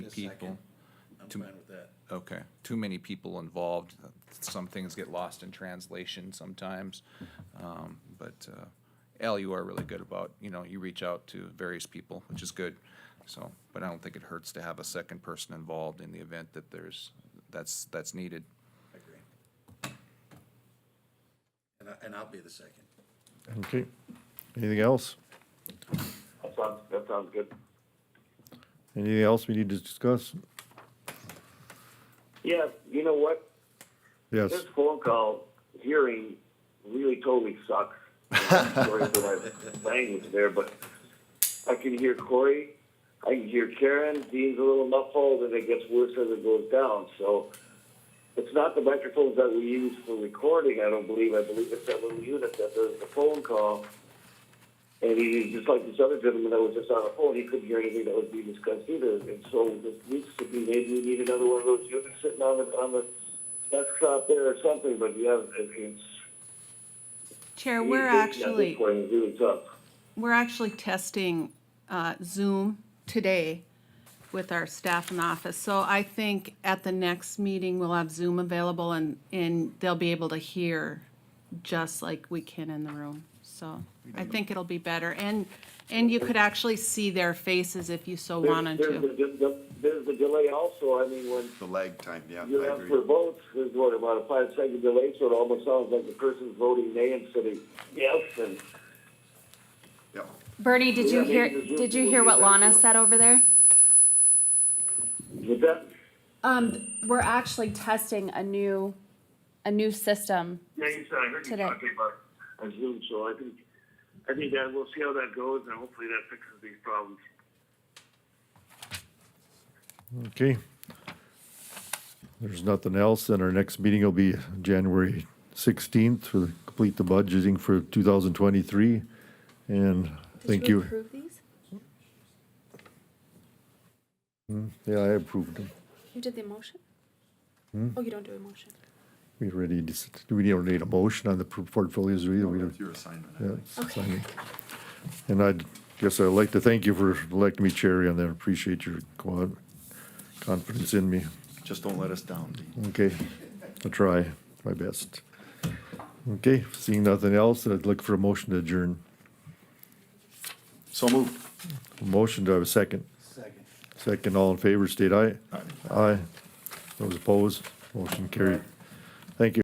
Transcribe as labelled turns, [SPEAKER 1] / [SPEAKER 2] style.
[SPEAKER 1] people.
[SPEAKER 2] I'm
[SPEAKER 1] Too-
[SPEAKER 2] fine with that.
[SPEAKER 1] Okay, too many people involved. Some things get lost in translation sometimes. Um, But uh, Al, you are really good about, you know, you reach out to various people, which is good. So, but I don't think it hurts to have a second person involved in the event that there's, that's, that's needed.
[SPEAKER 2] I agree. And I, and I'll be the second.
[SPEAKER 3] Okay. Anything else?
[SPEAKER 4] That sounds, that sounds good.
[SPEAKER 3] Anything else we need to discuss?
[SPEAKER 4] Yeah, you know what?
[SPEAKER 3] Yes.
[SPEAKER 4] This phone call hearing really totally sucks. Sorry for my language there, but I can hear Corey, I can hear Karen, Dean's a little muffled, and it gets worse as it goes down, so. It's not the microphones that we use for recording, I don't believe, I believe it's that little unit that does the phone call. And he, just like this other gentleman that was just on the phone, he couldn't hear anything that was being discussed either. And so this needs to be, maybe we need another one of those units sitting on the, on the desktop there or something, but yeah, it- it's.
[SPEAKER 5] Chair, we're
[SPEAKER 4] communication at this
[SPEAKER 5] actually,
[SPEAKER 4] point is really tough.
[SPEAKER 5] we're actually testing uh, Zoom today with our staff in the office. So I think at the next meeting, we'll have Zoom available and, and they'll be able to hear just like we can in the room. So I think it'll be better. And, and you could actually see their faces if you so
[SPEAKER 4] There's-
[SPEAKER 5] wanted
[SPEAKER 4] there's the-
[SPEAKER 5] to.
[SPEAKER 4] the- There's the delay also, I mean, when
[SPEAKER 6] The lag time, yeah,
[SPEAKER 4] you
[SPEAKER 6] I
[SPEAKER 4] have
[SPEAKER 6] agree.
[SPEAKER 4] for votes, there's what, about a five second delay, so it almost sounds like the person's voting nay instead of yes, and
[SPEAKER 6] Yeah.
[SPEAKER 7] Bernie, did you
[SPEAKER 4] Yeah,
[SPEAKER 7] hear,
[SPEAKER 4] maybe the Zoom
[SPEAKER 7] did you
[SPEAKER 4] people
[SPEAKER 7] hear
[SPEAKER 4] do
[SPEAKER 7] what
[SPEAKER 4] that,
[SPEAKER 7] Lana
[SPEAKER 4] yeah.
[SPEAKER 7] said over there?
[SPEAKER 4] with that,
[SPEAKER 7] Um, we're actually testing a new, a new system.
[SPEAKER 4] Yeah, you said, I heard you
[SPEAKER 7] Today.
[SPEAKER 4] talking about a Zoom, so I think, I think that we'll see how that goes, and hopefully that fixes these problems.
[SPEAKER 3] Okay. There's nothing else, then our next meeting will be January sixteenth for the, complete the budgeting for two thousand twenty-three. And thank you.
[SPEAKER 7] Approve these?
[SPEAKER 3] Yeah, I approved them.
[SPEAKER 7] You did the motion?
[SPEAKER 3] Hmm?
[SPEAKER 7] Oh, you don't do a motion.
[SPEAKER 3] We already, dis- do we don't need a motion on the pro- portfolios, do we? we? don't-
[SPEAKER 6] That's your assignment. I
[SPEAKER 3] yeah,
[SPEAKER 6] think.
[SPEAKER 3] it's signing. And I guess I'd like to thank you for electing me chair and I appreciate your co- confidence in me.
[SPEAKER 6] Just don't let us down, Dean.
[SPEAKER 3] Okay, I'll try my best. Okay, seeing nothing else, I'd look for a motion to adjourn.
[SPEAKER 6] So moved.
[SPEAKER 3] A Motion, do I have a second?
[SPEAKER 2] Second.
[SPEAKER 3] Second, all in favor, state aye.
[SPEAKER 6] Aye.
[SPEAKER 3] Aye. Those opposed, motion carried.